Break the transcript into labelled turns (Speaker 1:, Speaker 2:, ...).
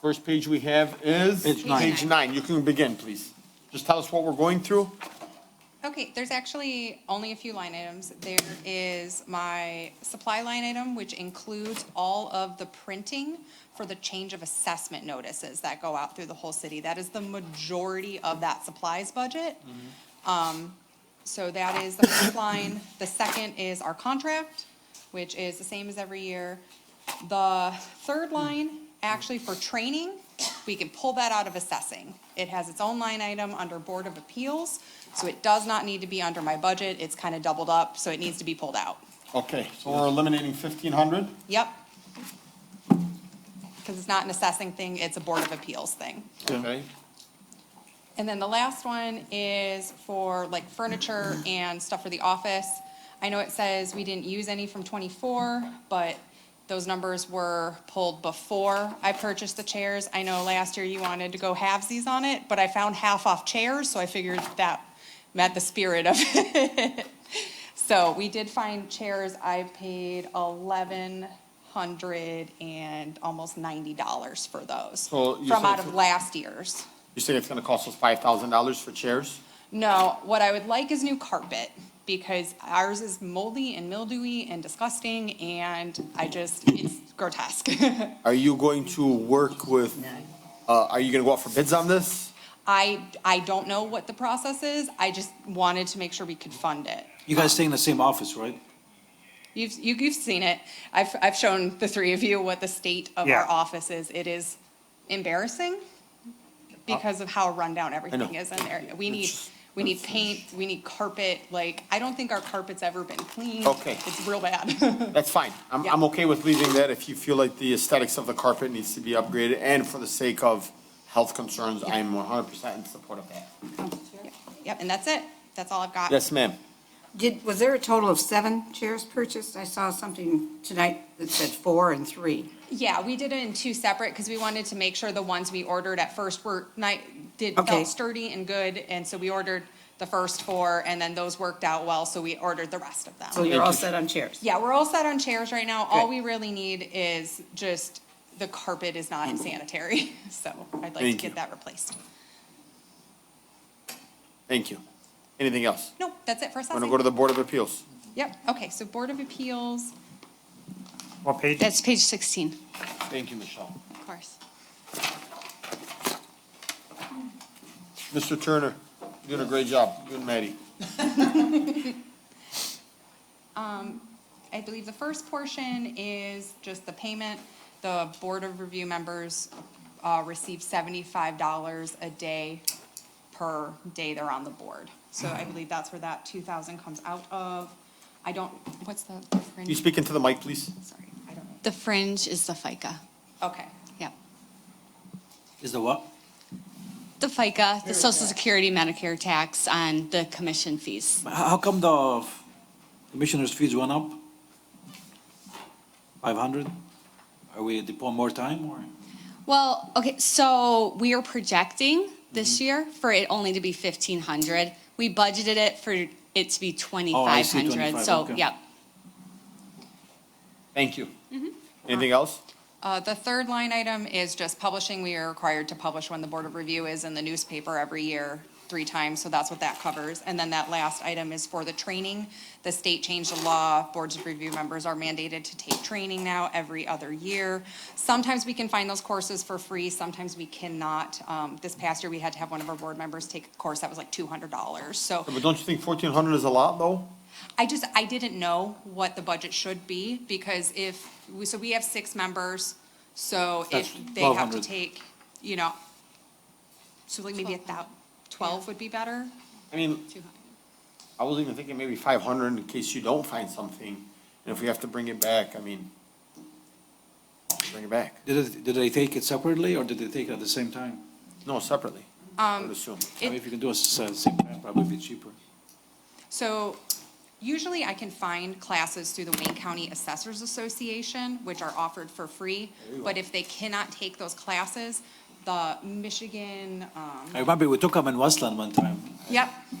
Speaker 1: First page we have is?
Speaker 2: Page nine.
Speaker 1: Page nine. You can begin, please. Just tell us what we're going through.
Speaker 3: Okay, there's actually only a few line items. There is my supply line item, which includes all of the printing for the change of assessment notices that go out through the whole city. That is the majority of that supplies budget. Um, so that is the first line. The second is our contract, which is the same as every year. The third line, actually for training, we can pull that out of assessing. It has its own line item under Board of Appeals, so it does not need to be under my budget. It's kind of doubled up, so it needs to be pulled out.
Speaker 1: Okay, so we're eliminating fifteen hundred?
Speaker 3: Yep. Because it's not an assessing thing, it's a Board of Appeals thing.
Speaker 1: Okay.
Speaker 3: And then the last one is for like furniture and stuff for the office. I know it says we didn't use any from twenty-four, but those numbers were pulled before I purchased the chairs. I know last year you wanted to go halvesies on it, but I found half-off chairs, so I figured that met the spirit of it. So we did find chairs. I paid eleven hundred and almost ninety dollars for those
Speaker 1: So you
Speaker 3: from
Speaker 1: said
Speaker 3: out
Speaker 1: for-
Speaker 3: of last year's.
Speaker 1: You said it's gonna cost us five thousand dollars for chairs?
Speaker 3: No, what I would like is new carpet because ours is moldy and mildewy and disgusting and I just, it's grotesque.
Speaker 1: Are you going to work with, uh, are you gonna go out for bids on this?
Speaker 3: I, I don't know what the process is. I just wanted to make sure we could fund it.
Speaker 2: You guys stay in the same office, right?
Speaker 3: You've, you- you've seen it. I've, I've shown the three of you what the state of
Speaker 2: Yeah.
Speaker 3: our office is. It is embarrassing because of how rundown everything is in there. We need, we need paint, we need carpet, like, I don't think our carpet's ever been cleaned.
Speaker 1: Okay.
Speaker 3: It's real bad.
Speaker 1: That's fine. I'm,
Speaker 3: Yeah.
Speaker 1: I'm okay with leaving that if you feel like the aesthetics of the carpet needs to be upgraded and for the sake of health concerns, I am one hundred percent in support of that.
Speaker 3: Yep, and that's it. That's all I've got.
Speaker 1: Yes, ma'am.
Speaker 4: Did, was there a total of seven chairs purchased? I saw something tonight that said four and three.
Speaker 3: Yeah, we did it in two separate because we wanted to make sure the ones we ordered at first were night, did,
Speaker 4: Okay.
Speaker 3: felt sturdy and good. And so we ordered the first four and then those worked out well, so we ordered the rest of
Speaker 4: So
Speaker 3: them.
Speaker 4: you're all set on chairs?
Speaker 3: Yeah, we're all set on chairs right now. All
Speaker 4: Good.
Speaker 3: we really need is just, the carpet is not sanitary, so I'd like to
Speaker 1: Mm-hmm. Thank you.
Speaker 3: get that replaced.
Speaker 1: Thank you. Anything else?
Speaker 3: No, that's it for
Speaker 1: I'm gonna go
Speaker 3: assessing.
Speaker 1: to the Board of Appeals.
Speaker 3: Yep, okay, so Board of Appeals,
Speaker 5: What page?
Speaker 6: That's page 16,
Speaker 1: Thank you, Michelle.
Speaker 6: of course.
Speaker 1: Mr. Turner, you're doing a great job. You and Maddie.
Speaker 3: I believe the first portion is just the payment. The Board of Review members uh, receive seventy-five dollars a day per day they're on the board. So I believe that's where that two thousand comes out of. I don't, what's the
Speaker 1: You
Speaker 3: fringe?
Speaker 1: speak into the mic, please?
Speaker 3: Sorry, I don't know.
Speaker 6: The fringe is the FICA,
Speaker 3: Okay,
Speaker 6: yeah.
Speaker 2: Is the what?
Speaker 6: The FICA, the Social Security Medicare tax on the commission fees.
Speaker 2: How how come the commissioners' fees went up? Five hundred? Are we deploying more time or?
Speaker 6: Well, okay, so we are projecting this year for it only to be 1,500. We budgeted it for it to be 2,500,
Speaker 2: 25,
Speaker 6: so,
Speaker 2: okay.
Speaker 6: yep.
Speaker 1: Thank you. Anything else?
Speaker 3: Uh, The third line item is just publishing. We are required to publish when the Board of Review is in the newspaper every year, three times, so that's what that covers. And then that last item is for the training. The state changed the law. Boards of Review members are mandated to take training now every other year. Sometimes we can find those courses for free, sometimes we cannot. Um, This past year, we had to have one of our board members take a course that was like $200. So
Speaker 1: But don't you think fourteen hundred is a lot, though?
Speaker 3: I just, I didn't know what the budget should be, because if, we- so we have six members, so if
Speaker 2: That's
Speaker 3: they have to
Speaker 2: 1,200.
Speaker 3: take, you know, so like maybe a thou, twelve would be better?
Speaker 1: I mean, I was even thinking maybe five hundred in case you don't find something, and if we have to bring it back, I mean, bring it back.
Speaker 2: Did, it- did they take it separately or did they take it at the same time?
Speaker 1: No, separately, I would assume.
Speaker 2: I mean, if you can do it s- at the same time, probably be cheaper.
Speaker 3: So usually I can find classes through the Wayne County Assessors Association, which are offered for free, but if they cannot take those classes, the Michigan, um,
Speaker 2: I remember we took them in Westland one time.
Speaker 3: yep,